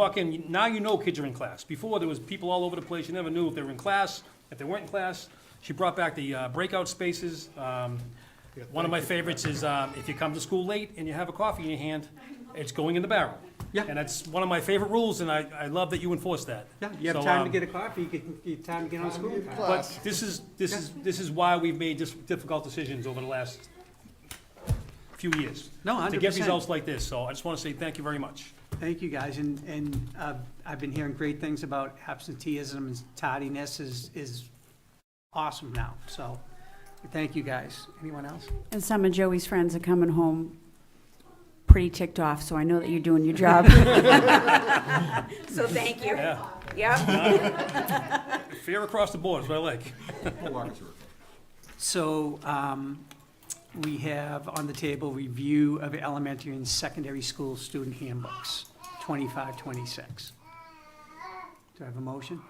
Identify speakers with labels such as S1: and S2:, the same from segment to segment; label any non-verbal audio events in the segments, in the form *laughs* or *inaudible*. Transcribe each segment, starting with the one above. S1: walk in, now you know kids are in class. Before, there was people all over the place, you never knew if they were in class, if they weren't in class. She brought back the uh, breakout spaces. Um, One of my favorites is um, if you come to school late and you have a coffee in your hand, it's going in the barrel.
S2: Yeah.
S1: And that's one of my favorite rules, and I, I love that you enforce that.
S2: Yeah, you have
S1: So,
S2: time to
S1: um,
S2: get a coffee, you can, you have time to get on school.
S1: But this is, this is, this is why we've made dis- difficult decisions over the last few years.
S2: No,
S1: To
S2: 100%.
S1: get results like this, so I just want to say thank you very much.
S2: Thank you, guys, and, and uh, I've been hearing great things about absenteeism and tardiness is, is awesome now, so, thank you, guys. Anyone else?
S3: And some of Joey's friends are coming home pretty ticked off, so I know that you're doing your job. *laughs* So thank you.
S1: Yeah.
S3: Yep.
S1: Fair across the board is what I like.
S2: So, um, we have on the table review of elementary and secondary school student handbooks, twenty-five, twenty-six. Do I have a motion?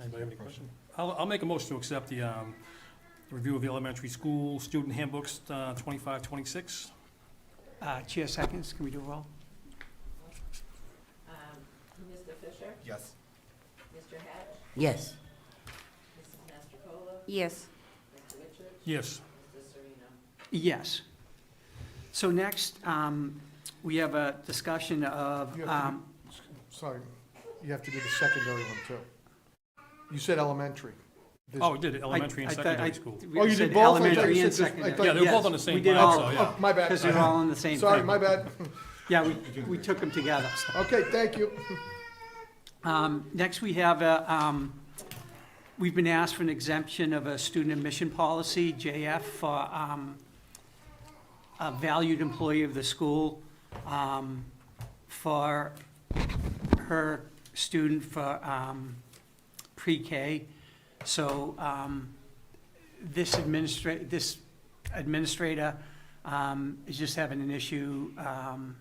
S1: Anybody have any question? I'll, I'll make a motion to accept the, um, review of the elementary school student handbooks, uh, twenty-five, twenty-six.
S2: Uh, chair seconds, can we do a roll?
S4: Mr. Fisher,
S5: Yes.
S4: Mr. Hatch,
S6: Yes,
S4: Mrs. Mastercola,
S3: Yes.
S4: Mr. Richards,
S1: Yes,
S4: Mr. Serena.
S2: Yes. So next, um, we have a discussion of,
S5: You have to
S2: um,
S5: Sorry, you have to do the secondary one too. You said elementary. There's-
S1: oh, we did it, elementary and
S2: I- I thought
S1: secondary
S2: I-
S1: school.
S2: we
S5: Oh, you
S2: said
S5: did both? I thought you
S2: Elementary
S5: said
S2: and
S5: just- I
S2: secondary.
S5: thought-
S1: Yeah, they were both
S2: Yes,
S1: on the same
S2: We did
S1: line, so,
S2: all,
S1: yeah.
S5: Oh, My bad.
S2: because they're all in the same
S5: Sorry,
S2: thing.
S5: my bad.
S2: Yeah, we, we took them together.
S5: Okay, thank you.
S2: Um, next, we have a, um, we've been asked for an exemption of a student admission policy, JF, for, um, a valued employee of the school, um, for her student for, um, pre-K. So, um, this administra, this administrator, um, is just having an issue, um,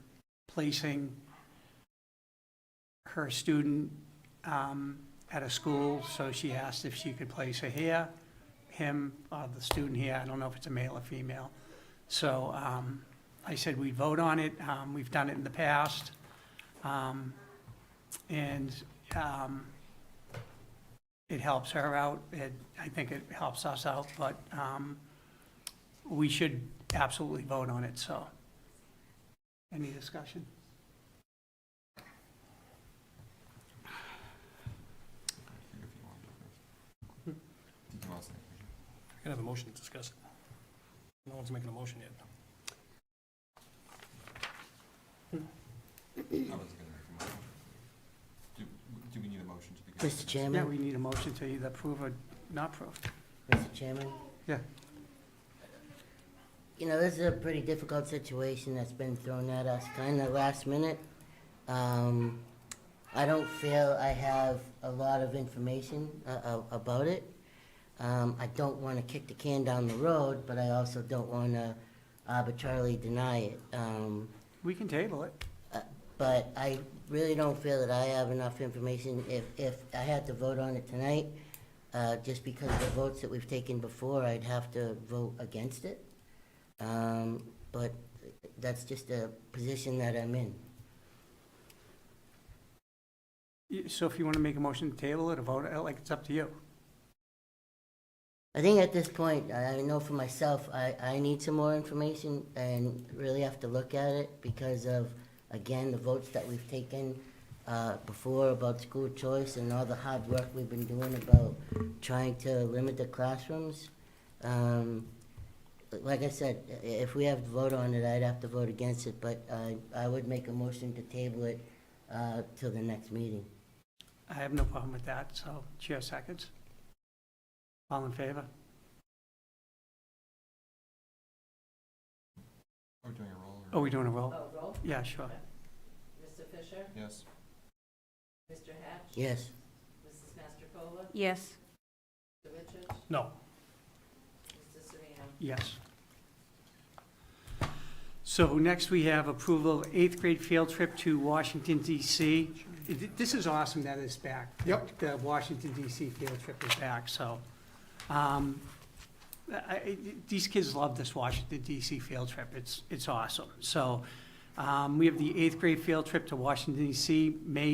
S2: placing her student um, at a school, so she asked if she could place her here, him, uh, the student here, I don't know if it's a male or female. So um, I said we'd vote on it, Um, we've done it in the past. Um, And um, it helps her out, it, I think it helps us out, but um, we should absolutely vote on it, so. Any discussion?
S1: I can have a motion to discuss it. No one's making a motion yet.
S7: Do we need a motion to begin?
S6: Mr.
S2: Yeah,
S6: Chairman,
S2: we need a motion to either approve or not approve.
S6: Mr. Chairman,
S2: Yeah.
S6: you know, this is a pretty difficult situation that's been thrown at us kind of last minute. Um, I don't feel I have a lot of information uh, uh, about it. Um, I don't want to kick the can down the road, but I also don't want to arbitrarily deny it. Um,
S2: We can table it.
S6: but I really don't feel that I have enough information. If, if I had to vote on it tonight, uh, just because of the votes that we've taken before, I'd have to vote against it. Um, but that's just a position that I'm in.
S2: Y- So if you want to make a motion to table it or vote, it, like, it's up to you.
S6: I think at this point, I, I know for myself, I, I need some more information and really have to look at it because of, again, the votes that we've taken uh, before about school choice and all the hard work we've been doing about trying to limit the classrooms. Um, like I said, i- if we have to vote on it, I'd have to vote against it, but I, I would make a motion to table it uh, till the next meeting.
S2: I have no problem with that, so chair seconds. All in favor?
S7: Are we doing a roll
S2: Oh,
S7: or?
S2: we doing a roll?
S4: Oh, roll.
S2: Yeah, sure.
S4: Mr. Fisher,
S7: Yes.
S4: Mr. Hatch,
S6: Yes.
S4: Mrs. Mastercola,
S3: Yes.
S4: Mr. Richards,
S1: No,
S4: Mr. Serena.
S2: Yes. So next we have approval of eighth grade field trip to Washington DC. Th- This is awesome that it's back.
S5: Yep.
S2: The Washington DC field trip is back, so. um, I- I- These kids love this Washington DC field trip. It's, it's awesome. So um, we have the eighth grade field trip to Washington DC, May